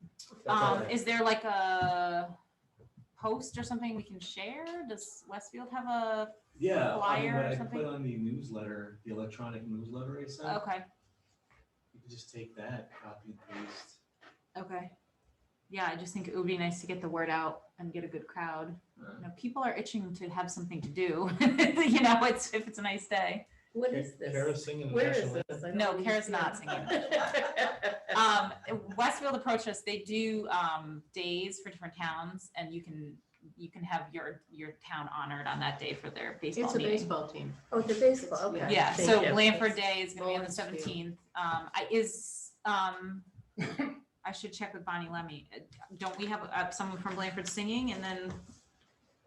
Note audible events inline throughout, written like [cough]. That's all Um, right. is there like a post or something we can share? Does Westfield have a, Yeah, I mean, flyer or but I can something? Oh. put on the newsletter, the electronic newsletter I sent. okay, You can just take that, copy and paste. okay. Yeah, I just think it would be nice to get the word out and get a good crowd. You know, people are itching to have something to do, [laughs] you know, it's, if it's a nice day. [laughs] What is this? Kara's singing the Where is national anthem. this? I No, don't Kara's not understand. um, Westfield approached us. They do um, days for different towns, and you can you can have your your town honored on that day for their [laughs] baseball It's a meeting. baseball team. Oh, the baseball, okay. Yeah, Thank so you. Blanford Day is gonna be on the Lawrence Field. seventeenth. Um, I is, um, I should check with Bonnie Lemmy. Uh, Don't we have uh, someone from Blanford singing and then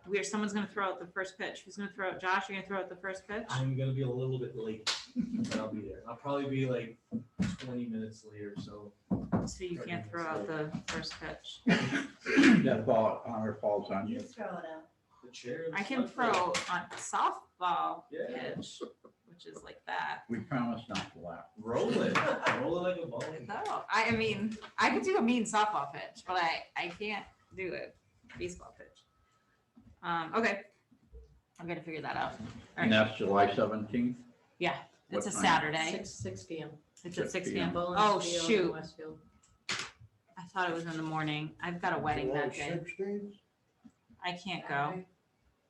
we're, someone's gonna throw out the first pitch. Who's gonna throw out? Josh, you're gonna throw out the first pitch? I'm gonna be a little bit late, but I'll be there. I'll probably be like twenty minutes later, so. So you can't throw out the first pitch. That ball, honor falls on you. You throw it out. The chair. I can throw on softball Yeah. pitch, which is like that. We promise not to laugh. Roll it, roll it like [laughs] a ball. No, I, I mean, I could do a mean softball pitch, but I, I can't do a baseball pitch. Um, okay. I'm gonna figure that out. All And right. that's July seventeenth? Yeah, It's a What time? Saturday. Six, six P M. It's at 6 six p.m. p.m. Bowling Oh, field in shoot. Westfield. I thought it was in the morning. I've got a wedding Oh, that day. Sixteenth, I can't go.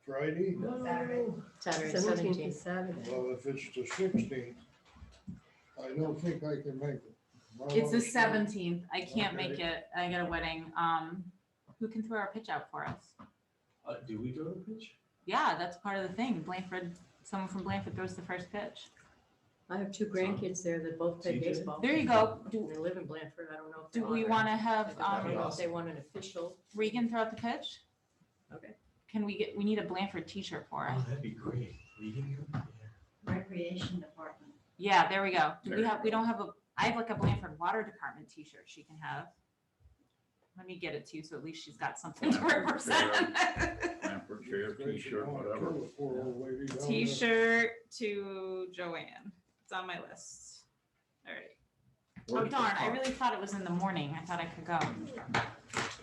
Friday? Saturday. Saturday, Seventeenth seventeenth. is Saturday. Well, if it's the sixteenth, I don't think I can make it. My It's the wife's not- seventeenth. I can't make Okay. it. I got a wedding. Um, who can throw our pitch out for us? Uh, do we throw the pitch? Yeah, that's part of the thing. Blanford, someone from Blanford throws the first pitch. I have two grandkids there that both play TJ? baseball. There you go. Do, They live in Blanford. I don't know if. do they're we honored. want to have, I don't um, know if they want an official. Regan throw out the pitch? Okay. Can we get, we need a Blanford t-shirt for Oh, us. that'd be great. We can go there. Recreation Department. Yeah, there we go. Do There we you have, we go. don't have a, I have like a Blanford Water Department t-shirt she can have. Let me get it to you, so at least she's got something to Blanford, represent. Lamper chair, It's great to t-shirt, go and whatever. kill the Poor old lady down there. T-shirt to Joanne. It's on my list. All right. Oh Where's the darn, I park? really thought it was in the morning. I thought I could go.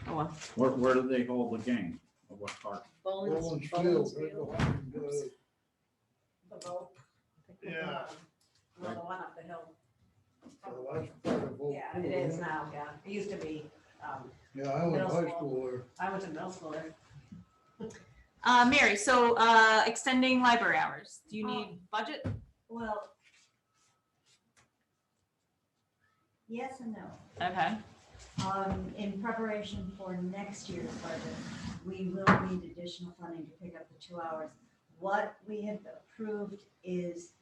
Oh, well. Where, where do they hold the game? Or What park? Rollins Bowling, Field, bowling they're field. behind, uh, The boat. Yeah. Well, the one up the hill. the last part of Old Yeah, Pool, it is yeah. now, yeah. It used to be, um, Yeah, I went Middle high school. school there. I went to middle school there. Uh, Mary, so, uh, extending library hours. Do you Oh. need budget? Well. Yes and no. Okay. Um, in preparation for next year's budget, we will need additional funding to pick up the two hours. What we have approved is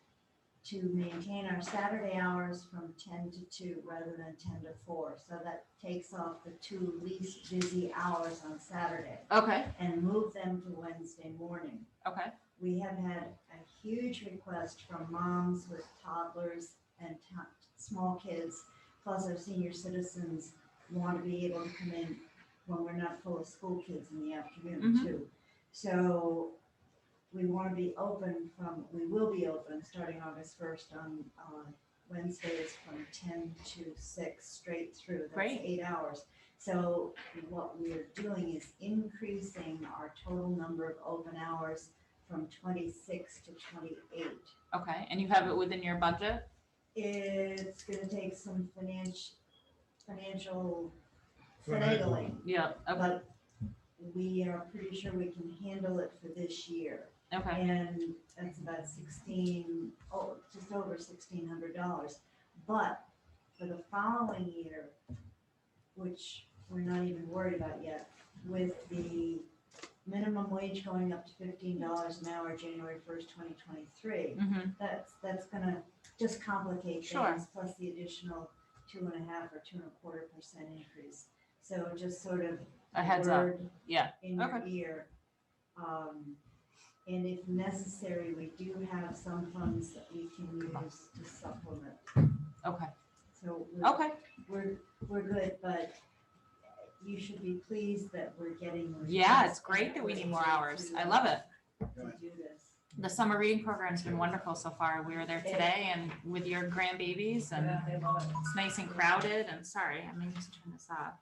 to maintain our Saturday hours from ten to two rather than ten to four. So that takes off the two least busy hours on Saturday Okay, and move them to Wednesday morning. okay. We have had a huge request from moms with toddlers and to- small kids, plus our senior citizens want to be able to come in when we're not full of school kids in the afternoon Mhm. too. So we want to be open from, we will be open starting August first on, uh Wednesdays from ten to six, straight through. That's Great. eight hours. So what we're doing is increasing our total number of open hours from twenty-six to twenty-eight. Okay, and you have it within your budget? It's gonna take some financial, financial Finagling. finagling, Yeah. Okay, but we are pretty sure we can handle it for this year. okay, And that's about sixteen, oh, just over sixteen hundred dollars. But for the following year, which we're not even worried about yet, with the minimum wage going up to fifteen dollars an hour, January first, twenty twenty-three, mhm, that's, that's gonna just complicate Sure. things, plus the additional two and a half or two and a quarter percent increase. So just sort of. a heads up, word yeah, In your okay. ear. Um, and if necessary, we do have some funds that we can use to supplement, okay, so. we're- okay, We're, we're good, but you should be pleased that we're getting. yeah, it's requests and great that we we're need more able hours, to- I love it. To do this. The summer reading program's been wonderful so far, we were there today and with your grandbabies and Yeah, they love it. it's nice and crowded, and sorry, I may need to turn this off.